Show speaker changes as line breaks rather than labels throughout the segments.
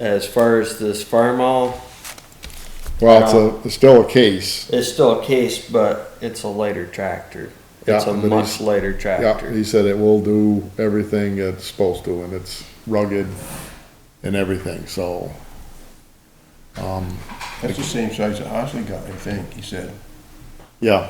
As far as this farm all,
Well, it's a, it's still a case.
it's still a case, but it's a lighter tractor. It's
Yeah,
a
but he's-
much lighter
Yeah,
tractor.
he said it will do everything it's supposed to and it's rugged and everything, so.
That's the same size that Osley got, I think, he said.
Yeah,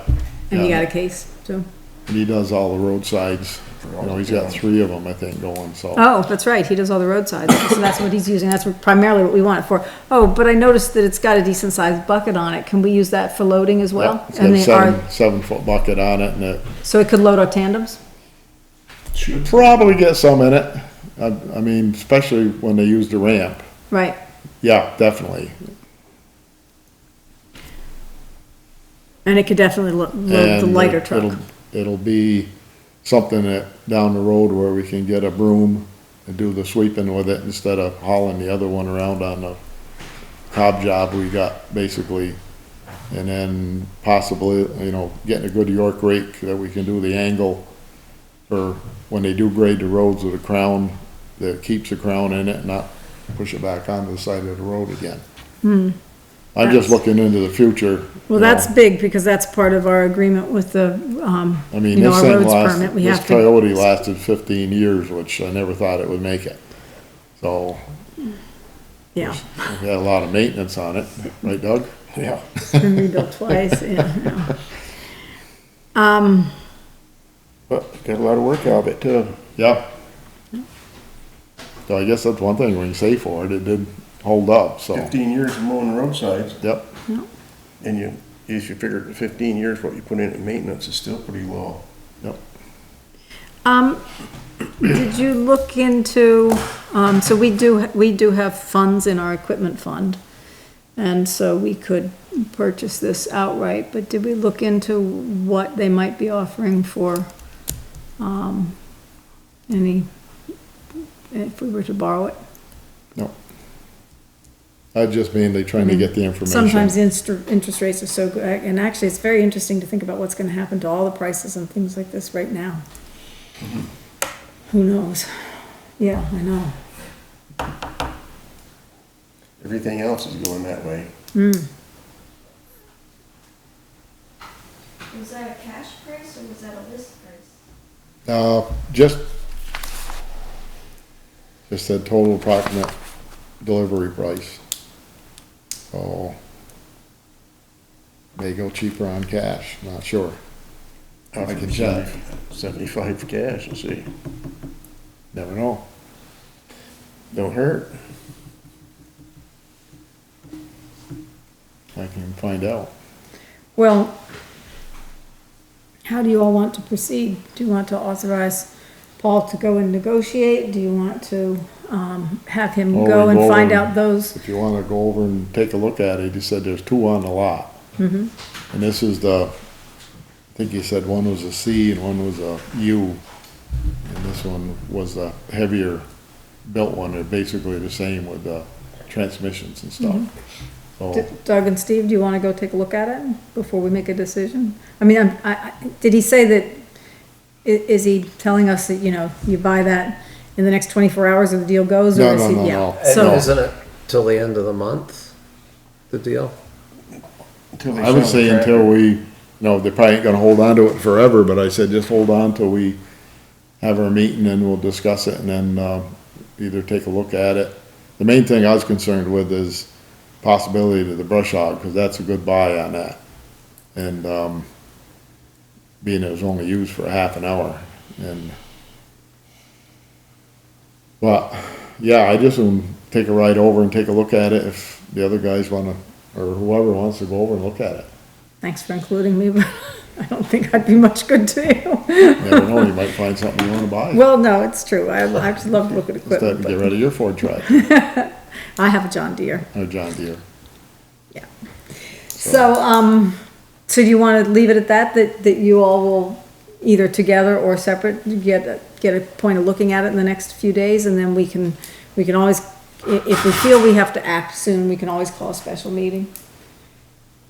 And you
Yeah.
got a case, too?
and he does all the roadsides. You know, he's got three of them, I think, going, so.
Oh, that's right, he does all the roadsides, so that's what he's using, that's primarily what we want it for. Oh, but I noticed that it's got a decent sized bucket on it, can we use that for loading as well?
Yeah, It's
And
got
they are,
seven, seven foot bucket on it and it
so it could load our tandems?
Should
probably get some in it. I, I mean, especially when they use the ramp.
Right,
Yeah, definitely.
and it could definitely lo- load the
And
lighter
it'll-
truck.
It'll be something that, down the road where we can get a broom and do the sweeping with it instead of hauling the other one around on the cob job we got, basically. And then possibly, you know, getting a good York rake that we can do the angle for when they do grade the roads with a crown, that keeps the crown in it, not push it back onto the side of the road again. I'm just
Hmm. That's-
looking into the future.
Well,
you know.
that's big, because that's part of our agreement with the, um,
I mean,
you know,
this
our
thing
roads permit,
lasted,
we
this
have
coyote
to.
lasted fifteen years, which I never thought it would make it. So,
Yeah,
we had a lot of maintenance on it, right Doug?
Yeah.
it's been rebuilt twice, yeah, yeah.
But got a lot of work out of it, too.
Yep. So I guess that's one thing we can say for it, it did hold up, so,
Fifteen years of mowing roadsides,
yep,
and you, if you figure fifteen years, what you put in in maintenance is still pretty low.
yep.
Um, did you look into, um, so we do, we do have funds in our equipment fund. And so we could purchase this outright, but did we look into what they might be offering for, um, any, if we were to borrow it?
No. I just mainly trying to get the
Mm-hmm. Sometimes
information.
the instr- interest rates are so good, and actually, it's very interesting to think about what's gonna happen to all the prices and things like this right now. Who knows? Yeah, I know.
Everything else is going that way.
Was that a cash price or was that a list price?
Uh, just, just said total approximate delivery price. So, may go cheaper on cash, not sure. I can check,
Seventy-five for cash, let's see.
never know.
Don't hurt.
I can find out.
Well, how do you all want to proceed? Do you want to authorize Paul to go and negotiate? Do you want to, um, have him
Well,
go
we
and
go
find
and-
out those?
If you wanna go over and take a look at it, he said there's two on the lot. Mm-hmm. And this is the, I think he said one was a C and one was a U. And this one was a heavier built one, they're basically the same with the transmissions and stuff.
D-
So,
Doug and Steve, do you wanna go take a look at it before we make a decision? I mean, I'm- I, I, did he say that, i- is he telling us that, you know, you buy that in the next twenty-four hours or the deal goes? or
No,
is
no,
he-
no,
yeah.
no.
So-
And isn't it till the end of the month, the deal?
Until they
I would
sell the
say
tractor.
until we, no, they probably ain't gonna hold on to it forever, but I said just hold on till we have our meeting and we'll discuss it and then, um, either take a look at it. The main thing I was concerned with is possibility to the brush hog, cause that's a good buy on that. And, um, being it was only used for a half an hour and. But, yeah, I just wanna take a ride over and take a look at it if the other guys wanna, or whoever wants to go over and look at it.
Thanks for including me, but I don't think I'd be much good to you.
You never know, you might find something you wanna buy.
Well, no, it's true. I, I just love to look at
Just have to
equipment,
get
but
rid of your Ford truck,
I have a John Deere.
or John Deere.
Yeah. So, um, so do you want to leave it at that, that, that you all will either together or separate, get, a- get a point of looking at it in the next few days and then we can, we can always, i- if we feel we have to act soon, we can always call a special meeting.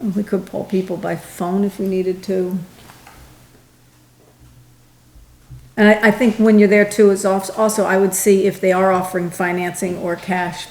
And We could poll people by phone if we needed to. And I, I think when you're there too, it's als- also, I would see if they are offering financing or cash